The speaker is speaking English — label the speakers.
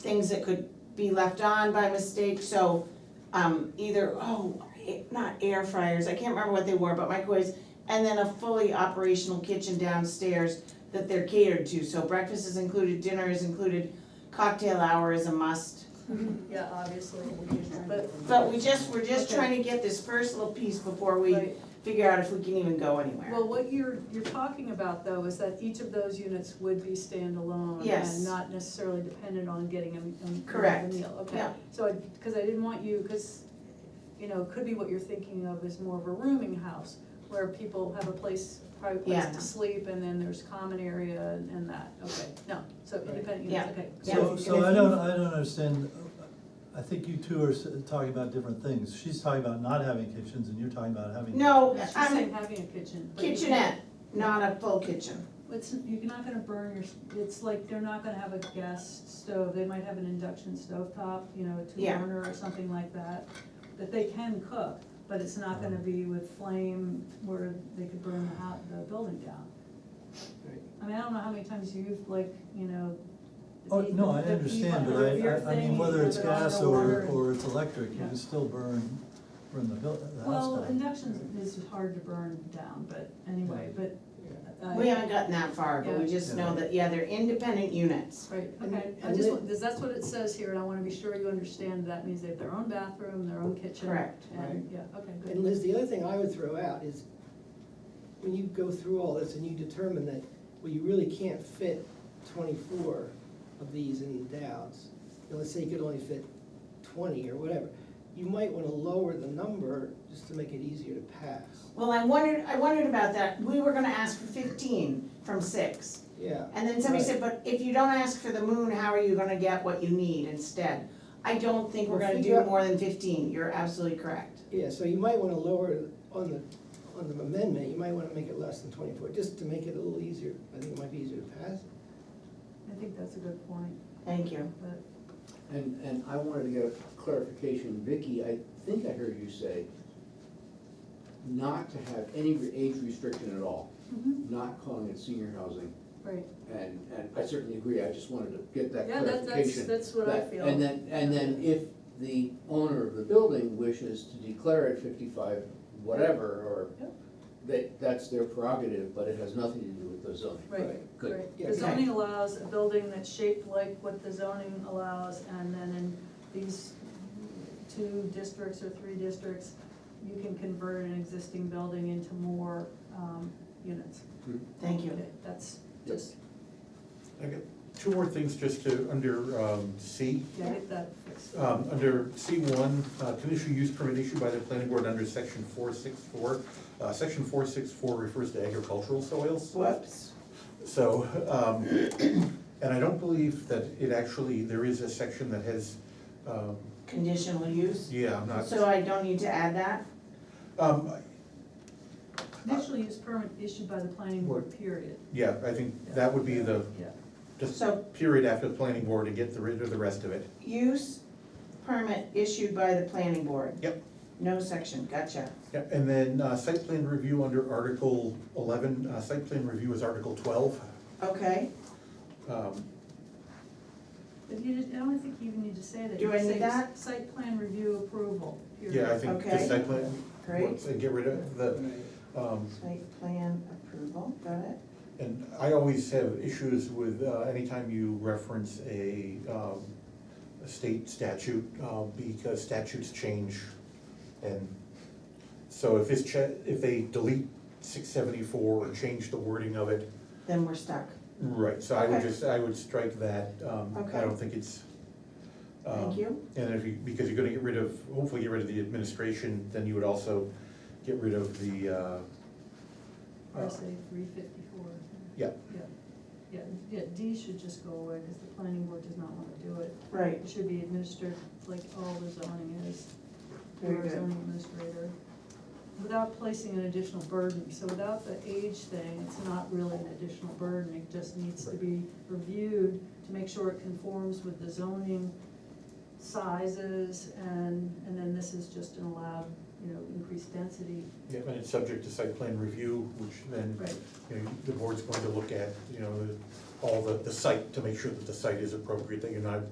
Speaker 1: things that could be left on by mistake, so, um, either, oh, a- not air fryers, I can't remember what they were, but microwaves, and then a fully operational kitchen downstairs that they're catered to, so breakfast is included, dinner is included, cocktail hour is a must.
Speaker 2: Yeah, obviously,
Speaker 1: But we just, we're just
Speaker 2: Okay.
Speaker 1: trying to get this first little piece before we
Speaker 2: right.
Speaker 1: figure out if we can even go anywhere.
Speaker 2: Well, what you're, you're talking about though is that each of those units would be standalone
Speaker 1: Yes.
Speaker 2: and not necessarily dependent on getting a, a- a meal, okay?
Speaker 1: Correct. Yeah.
Speaker 2: So, I- cause I didn't want you, cause, you know, could be what you're thinking of is more of a rooming house where people have a place, private place
Speaker 1: Yeah.
Speaker 2: to sleep and then there's common area and and that, okay, no, so independent units,
Speaker 1: Yeah.
Speaker 2: okay.
Speaker 1: Yeah.
Speaker 3: So, so I don't, I don't understand, uh, I think you two are s- talking about different things. She's talking about not having kitchens and you're talking about having.
Speaker 1: No,
Speaker 2: She's
Speaker 1: I'm
Speaker 2: saying having a kitchen. but you can't-
Speaker 1: kitchenette, not a full kitchen.
Speaker 2: It's, you're not gonna burn your, it's like, they're not gonna have a gas stove, they might have an induction stove top, you know, a two
Speaker 1: Yeah.
Speaker 2: burner or something like that. That they can cook, but it's not gonna be with flame where they could burn the hou- the building down.
Speaker 4: Right.
Speaker 2: I mean, I don't know how many times you've like, you know. the
Speaker 3: Oh,
Speaker 2: heat-
Speaker 3: no, I
Speaker 2: the heat
Speaker 3: understand,
Speaker 2: on
Speaker 3: but
Speaker 2: the beer
Speaker 3: I, I, I mean,
Speaker 2: thing,
Speaker 3: whether it's
Speaker 2: you know,
Speaker 3: gas
Speaker 2: the
Speaker 3: or,
Speaker 2: water.
Speaker 3: or it's electric, you
Speaker 2: Yeah.
Speaker 3: can still burn, burn the buil- the house
Speaker 2: Well,
Speaker 3: down.
Speaker 2: induction is hard to burn down, but anyway, but. uh,
Speaker 1: We haven't gotten that far, but we just know that, yeah, they're independent units.
Speaker 2: Right,
Speaker 4: And-
Speaker 2: okay, I
Speaker 4: and
Speaker 2: just,
Speaker 4: li-
Speaker 2: want- because that's what it says here, and I wanna be sure you understand that means they have their own bathroom, their own kitchen.
Speaker 1: Correct.
Speaker 2: And, yeah, okay,
Speaker 4: And
Speaker 2: good.
Speaker 4: Liz, the other thing I would throw out is, when you go through all this and you determine that, well, you really can't fit twenty-four of these in Dow's, and let's say you could only fit twenty or whatever, you might wanna lower the number just to make it easier to pass.
Speaker 1: Well, I wondered, I wondered about that. We were gonna ask for fifteen from six.
Speaker 4: Yeah,
Speaker 1: And then somebody said, but if you don't ask for the moon, how are you gonna get what you need instead? I don't think we're
Speaker 4: Well,
Speaker 1: gonna
Speaker 4: figure
Speaker 1: do
Speaker 4: out-
Speaker 1: more than fifteen. You're absolutely correct.
Speaker 4: yeah, so you might wanna lower it on the, on the amendment, you might wanna make it less than twenty-four, just to make it a little easier, I think it might be easier to pass.
Speaker 2: I think that's a good point,
Speaker 1: Thank you.
Speaker 2: but,
Speaker 5: And, and I wanted to get a clarification, Vicky, I think I heard you say not to have any re- age restriction at all, not calling it senior housing,
Speaker 2: right,
Speaker 5: and, and I certainly agree, I just wanted to get that
Speaker 2: yeah, that,
Speaker 5: clarification.
Speaker 2: that's, that's what I
Speaker 5: That-
Speaker 2: feel.
Speaker 5: And then, and then if the owner of the building wishes to declare it fifty-five whatever, or
Speaker 2: Yep.
Speaker 5: that, that's their prerogative, but it has nothing to do with the zoning.
Speaker 2: Right,
Speaker 5: Good.
Speaker 2: right,
Speaker 4: Yeah,
Speaker 2: the
Speaker 4: okay.
Speaker 2: zoning allows a building that's shaped like what the zoning allows, and then in these two districts or three districts, you can convert an existing building into more, um, units.
Speaker 5: Mm-hmm.
Speaker 1: Thank you.
Speaker 2: Okay, That's
Speaker 5: Yep.
Speaker 2: just,
Speaker 6: I got two more things just to, under um, C.
Speaker 2: yeah, get that fixed.
Speaker 6: Um, Under C one, uh, conditional use permit issued by the planning board under section four six four. uh, Section four six four refers to agricultural soils.
Speaker 1: Whoops.
Speaker 6: So, um, and I don't believe that it actually, there is a section that has, um,
Speaker 1: Conditional use.
Speaker 6: yeah, I'm not.
Speaker 1: So I don't need to add that?
Speaker 6: um,
Speaker 2: Conditional use permit issued by the planning board, period.
Speaker 6: Yeah, I think that would be the,
Speaker 2: Yeah,
Speaker 6: just
Speaker 1: So-
Speaker 6: period after the planning board to get the rid of the rest of it.
Speaker 1: Use permit issued by the planning board.
Speaker 6: Yep.
Speaker 1: No section, gotcha.
Speaker 6: Yeah, and then uh, site plan review under Article eleven, uh, site plan review is Article twelve.
Speaker 1: Okay.
Speaker 6: Um,
Speaker 2: but you did I don't think you even need to say that.
Speaker 1: Do
Speaker 2: You
Speaker 1: I
Speaker 2: say
Speaker 1: need that?
Speaker 2: Site plan review approval, period.
Speaker 6: Yeah, I think
Speaker 1: Okay.
Speaker 6: the site plan,
Speaker 1: Great.
Speaker 6: once they get rid of the, um,
Speaker 1: Site plan approval, got it?
Speaker 6: and I always have issues with, uh, anytime you reference a, um, a state statute, uh, because statutes change. And so if this cha, if they delete six seventy-four or change the wording of it,
Speaker 1: Then we're stuck.
Speaker 6: right, so I would
Speaker 1: Okay.
Speaker 6: just, I would strike that, um,
Speaker 1: Okay.
Speaker 6: I don't think it's. um,
Speaker 1: Thank you.
Speaker 6: And if you, because you're gonna get rid of, hopefully get rid of the administration, then you would also get rid of the, uh. uh,
Speaker 2: RSA three fifty-four.
Speaker 6: Yeah.
Speaker 2: Yeah, yeah, yeah, D should just go away, because the planning board does not want to do it.
Speaker 1: Right,
Speaker 2: It should be administered like all the zoning is,
Speaker 1: Very
Speaker 2: or
Speaker 1: good.
Speaker 2: zoning administrator, without placing an additional burden. So without the age thing, it's not really an additional burden, it just needs to be reviewed to make sure it conforms with the zoning sizes, and, and then this is just an allowed, you know, increased density.
Speaker 6: Yeah, and it's subject to site plan review, which then,
Speaker 2: Right.
Speaker 6: you know, the board's going to look at, you know, the- all the, the site to make sure that the site is appropriate, that you're not